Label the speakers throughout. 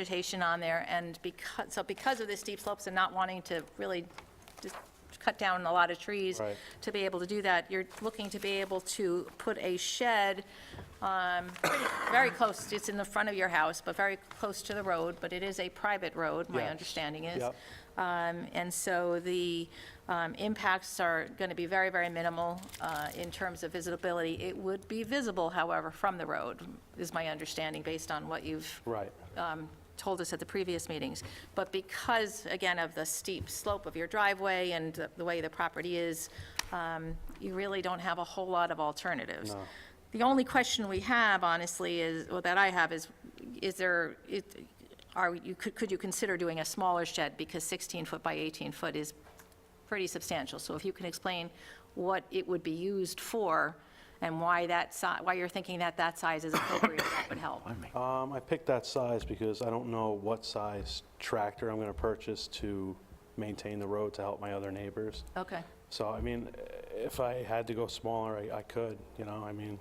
Speaker 1: vegetation on there, and because, so because of the steep slopes and not wanting to really just cut down a lot of trees
Speaker 2: Right.
Speaker 1: to be able to do that, you're looking to be able to put a shed um, pretty- very close, it's in the front of your house, but very close to the road, but it is a private road, my
Speaker 2: Yes.
Speaker 1: understanding is.
Speaker 2: Yep.
Speaker 1: Um, And so the um, impacts are going to be very, very minimal uh, in terms of visibility. It would be visible, however, from the road, is my understanding, based on what you've
Speaker 2: Right.
Speaker 1: um, told us at the previous meetings. But because, again, of the steep slope of your driveway and the- the way the property is, um, you really don't have a whole lot of alternatives.
Speaker 2: No.
Speaker 1: The only question we have, honestly, is, well, that I have is, is there, it- are, you, could could you consider doing a smaller shed? Because 16 foot by 18 foot is pretty substantial. So if you can explain what it would be used for and why that, si- why you're thinking that that size is appropriate, that would help.
Speaker 2: Um, I picked that size because I don't know what size tractor I'm going to purchase to maintain the road to help my other neighbors.
Speaker 1: Okay.
Speaker 2: So, I mean, if I had to go smaller, I, I could, you know, I mean,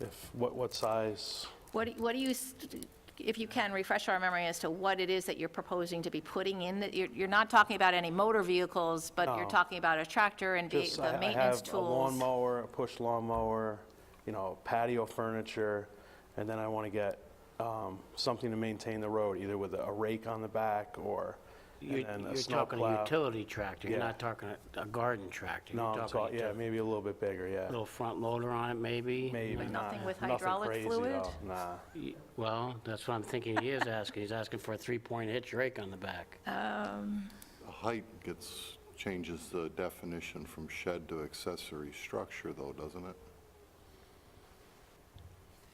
Speaker 2: if, what, what size?
Speaker 1: What, do- what do you, s- if you can, refresh our memory as to what it is that you're proposing to be putting in? that You're, you're not talking about any motor vehicles, but you're
Speaker 2: No.
Speaker 1: talking about a tractor and ve-
Speaker 2: Just I-
Speaker 1: the maintenance tools?
Speaker 2: I have a lawnmower, a push lawnmower, you know, patio furniture, and then I want to get um, something to maintain the road, either with a rake on the back or,
Speaker 3: You're
Speaker 2: and and a
Speaker 3: you're talking a
Speaker 2: snowplow.
Speaker 3: utility tractor, you're
Speaker 2: Yeah.
Speaker 3: not talking a- a garden tractor.
Speaker 2: No,
Speaker 3: You're
Speaker 2: I'm
Speaker 3: talking a
Speaker 2: talking, yeah,
Speaker 3: util-
Speaker 2: maybe a little bit bigger, yeah,
Speaker 3: Little front loader on it, maybe?
Speaker 2: maybe,
Speaker 1: Like
Speaker 2: not,
Speaker 1: nothing with
Speaker 2: nothing
Speaker 1: hydraulic
Speaker 2: crazy
Speaker 1: fluid?
Speaker 2: though, nah.
Speaker 3: Y- Well, that's what I'm thinking he is asking, he's asking for a three-point hitch rake on the back.
Speaker 4: Height gets, changes the definition from shed to accessory structure, though, doesn't it?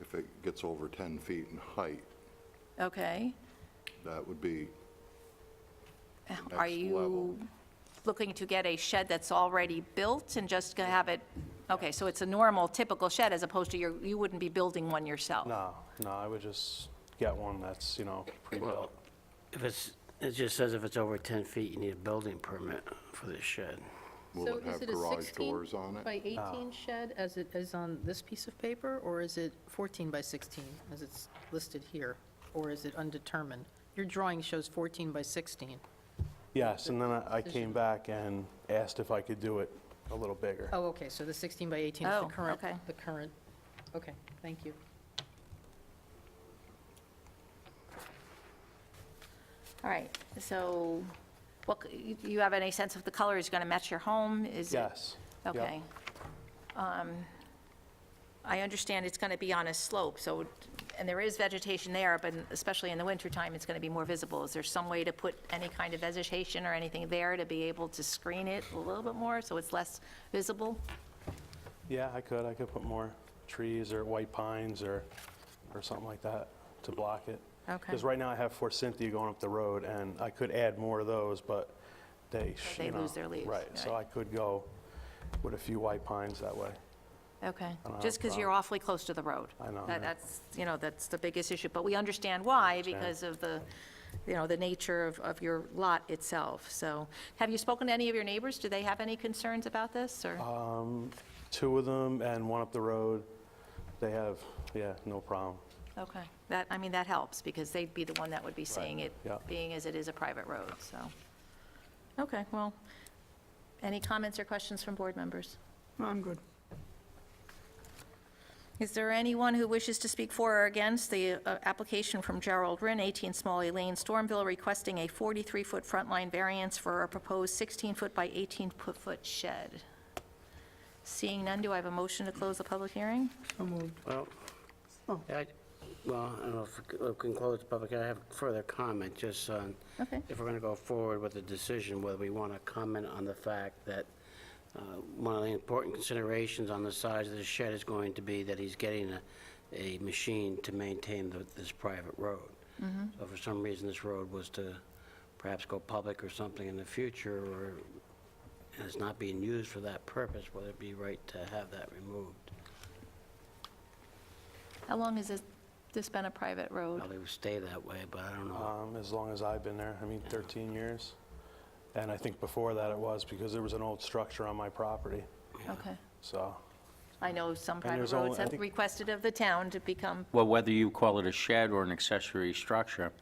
Speaker 4: If it gets over 10 feet in height,
Speaker 1: Okay.
Speaker 4: that would be the
Speaker 1: Are
Speaker 4: next level.
Speaker 1: you looking to get a shed that's already built and just gonna have it, okay, so it's a normal, typical shed as opposed to your, you wouldn't be building one yourself?
Speaker 2: No, no, I would just get one that's, you know, pre-built.
Speaker 3: If it's, it just says if it's over 10 feet, you need a building permit for this shed.
Speaker 4: Will it have garage doors on
Speaker 5: So is it a 16
Speaker 4: it?
Speaker 5: by
Speaker 1: Ah.
Speaker 5: 18 shed as it is on this piece of paper, or is it 14 by 16 as it's listed here? Or is it undetermined? Your drawing shows 14 by 16.
Speaker 2: Yes, and then I I came back and asked if I could do it a little bigger.
Speaker 5: Oh, okay, so the 16 by 18 is
Speaker 1: Oh,
Speaker 5: the current,
Speaker 1: okay.
Speaker 5: the current, okay, thank you.
Speaker 1: All right, so, what, c- you- you have any sense if the color is gonna match your home? Is it-
Speaker 2: Yes. yep.
Speaker 1: Okay. Um, I understand it's going to be on a slope, so, and there is vegetation there, but especially in the wintertime, it's going to be more visible. Is there some way to put any kind of vegetation or anything there to be able to screen it a little bit more so it's less visible?
Speaker 2: Yeah, I could, I could put more trees or white pines or, or something like that to block it.
Speaker 1: Okay.
Speaker 2: Because right now I have Forsythia going up the road, and I could add more of those, but they, sh-
Speaker 1: They
Speaker 2: you know,
Speaker 1: lose their leaves,
Speaker 2: Right, so I
Speaker 1: right.
Speaker 2: could go with a few white pines that way.
Speaker 1: Okay,
Speaker 2: don't have
Speaker 1: just
Speaker 2: a
Speaker 1: because you're awfully close to the road.
Speaker 2: I know,
Speaker 1: That-
Speaker 2: yeah.
Speaker 1: That's, you know, that's the biggest issue, but we understand why, because of the, you know, the nature of, of your lot itself, so. Have you spoken to any of your neighbors? Do they have any concerns about this, or?
Speaker 2: Two of them and one up the road, they have, yeah, no problem.
Speaker 1: Okay, that, I mean, that helps, because they'd be the one that would be seeing it,
Speaker 2: yeah.
Speaker 1: being as it is a private road, so. Okay, well, any comments or questions from board members?
Speaker 6: I'm good.
Speaker 1: Is there anyone who wishes to speak for or against the uh, application from Gerald Rinn, 18 Smalley Lane, Stormville, requesting a 43-foot front line variance for a proposed 16-foot by 18-foot shed? Seeing none, do I have a motion to close the public hearing?
Speaker 6: So moved.
Speaker 3: Well, I, well, I don't know if we can close the public, I have further comment, just on,
Speaker 1: Okay.
Speaker 3: if we're going to go forward with the decision, whether we want to comment on the fact that uh, one of the important considerations on the size of the shed is going to be that he's getting a, a machine to maintain the- this private road. So for some reason, this road was to perhaps go public or something in the future, or and it's not being used for that purpose, would it be right to have that removed?
Speaker 1: How long has this- this been a private road?
Speaker 3: Probably would stay that way, but I don't know.
Speaker 2: Um, As long as I've been there, I mean, 13 years. And I think before that it was, because there was an old structure on my property,
Speaker 1: Okay.
Speaker 2: so,
Speaker 1: I know some private
Speaker 2: there's only-
Speaker 1: roads
Speaker 2: I
Speaker 1: have
Speaker 2: think-
Speaker 1: requested of the town to become
Speaker 6: Well, whether you call it a shed or an accessory structure,